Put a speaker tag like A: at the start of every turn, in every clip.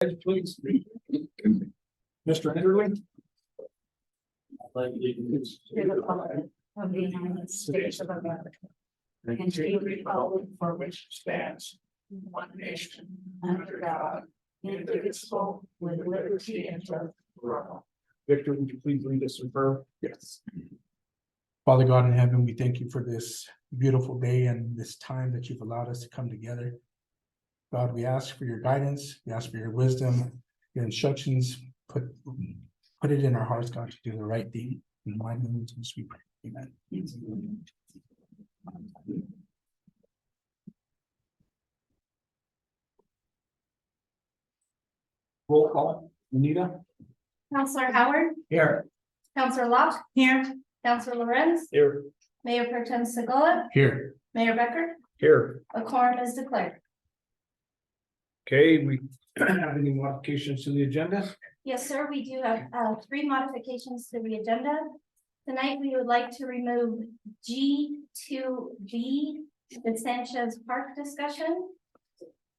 A: pledge, please. Mr. Enderlin.
B: to the Republic of the United States of America and to the Republic for which it stands one nation under God, indivisible, with liberty and justice for all.
A: Victor, would you please lead us in prayer? Yes.
C: Father God in heaven, we thank you for this beautiful day and this time that you've allowed us to come together. God, we ask for your guidance, we ask for your wisdom, your instructions, put, put it in our hearts, God, to do the right thing. In my name, Jesus, we pray. Amen.
A: Roll call, Anita?
D: Counselor Howard,
A: Here.
D: Counselor Locke. Here. Counselor Lorenz,
A: Here.
D: Mayor Pro Tem Segola,
C: Here,
D: Mayor Becker,
A: Here.
D: a quorum is declared.
A: Okay, we have any modifications to the agenda?
D: Yes, sir, we do have uh three modifications to the agenda. Tonight, we would like to remove G two B, the Sanchez Park discussion.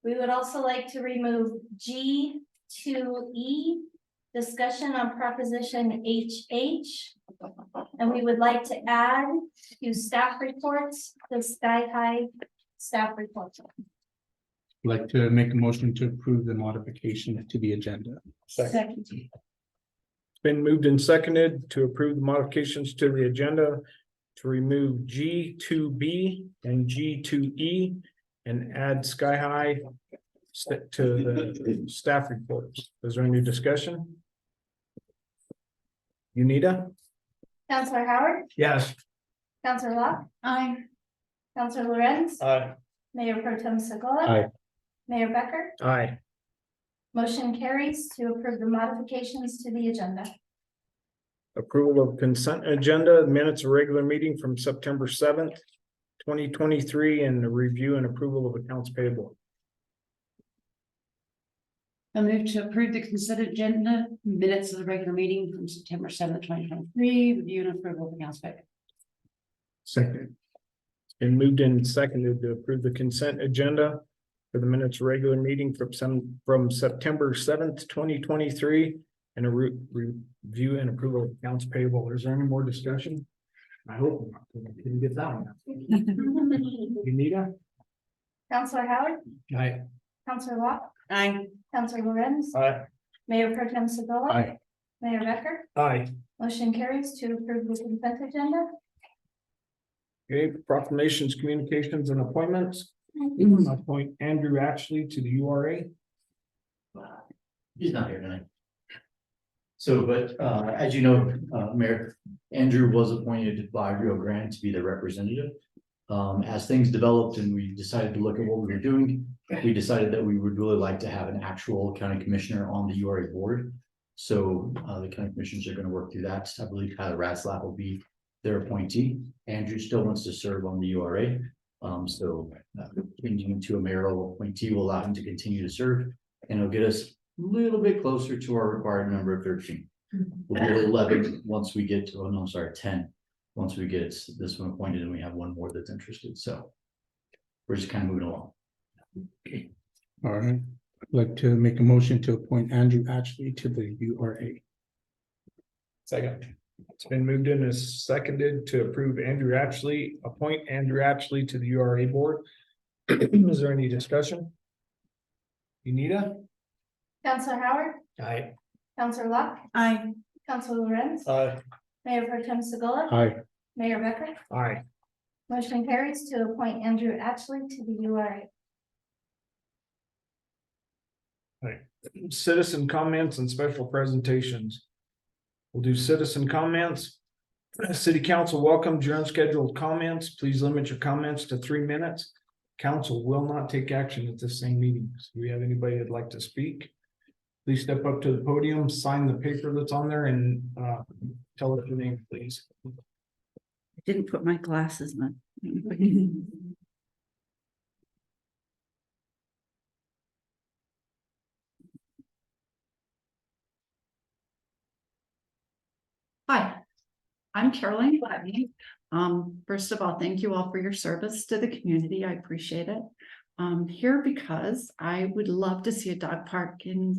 D: We would also like to remove G two E, discussion on proposition H H. And we would like to add to staff reports, the Sky High staff report.
C: I'd like to make a motion to approve the modification to the agenda.
D: Second.
A: It's Been moved and seconded to approve the modifications to the agenda to remove G two B and G two E and add Sky High st- to the staff reports. Is there any discussion? Unita?
D: Counselor Howard,
A: Yes.
D: Counselor Locke. Aye. Counselor Lorenz,
A: Aye.
D: Mayor Pro Tem Segola.
A: Aye.
D: Mayor Becker,
A: Aye.
D: motion carries to approve the modifications to the agenda.
A: Approval of consent agenda, minutes of regular meeting from September seventh, twenty twenty-three, and the review and approval of accounts payable.
E: I move to approve the consent agenda minutes of the regular meeting from September seventh, twenty twenty-three, review and approval of accounts payable.
A: Second. Been moved and seconded to approve the consent agenda for the minutes regular meeting from some, from September seventh, twenty twenty-three. And a re- review and approval of accounts payable. Is there any more discussion? I hope not. because I Didn't get that one. Anita?
D: Counselor Howard,
A: Aye.
D: Counselor Locke,
E: Aye.
D: Counselor Lorenz,
A: Aye.
D: Mayor Pro Tem Segola.
C: Aye.
D: Mayor Becker,
A: Aye.
D: motion carries to approve the consent agenda.
A: Okay, proclamations, communications and appointments. Appoint Andrew Ashley to the U R A.
F: He's not here tonight. So, but, uh, as you know, uh, Mayor Andrew was appointed by Rio Grande to be the representative. Um, as things developed and we decided to look at what we were doing, we decided that we would really like to have an actual county commissioner on the U R A board. So, uh, the county commissioners are gonna work through that. I believe Tyler Raslap will be their appointee. Andrew still wants to serve on the U R A. Um, so, uh, changing him to a mayoral appointee will allow him to continue to serve and it'll get us little bit closer to our required number of thirteen. We'll be at eleven, once we get to, oh no, I'm sorry, ten, once we get this one appointed and we have one more that's interested, so. We're just kind of moving along.
C: All right, I'd like to make a motion to appoint Andrew Ashley to the U R A.
A: Second. It's been moved in as seconded to approve Andrew Ashley, appoint Andrew Ashley to the U R A board. Is there any discussion? Anita?
D: Counselor Howard,
A: Aye.
D: Counselor Locke,
E: Aye.
D: Counselor Lorenz,
A: Aye.
D: Mayor Pro Tem Segola.
C: Aye.
D: Mayor Becker,
A: Aye.
D: motion carries to appoint Andrew Ashley to the U R A.
A: Citizen comments and special presentations. We'll do citizen comments. City Council welcomes your unscheduled comments. Please limit your comments to three minutes. Council will not take action at this same meeting. Do we have anybody that'd like to speak? Please step up to the podium, sign the paper that's on there and uh tell us your name, please.
E: I Didn't put my glasses on. Hi, I'm Caroline Gladney. Um, first of all, thank you all for your service to the community. I appreciate it. Um, here because I would love to see a dog park in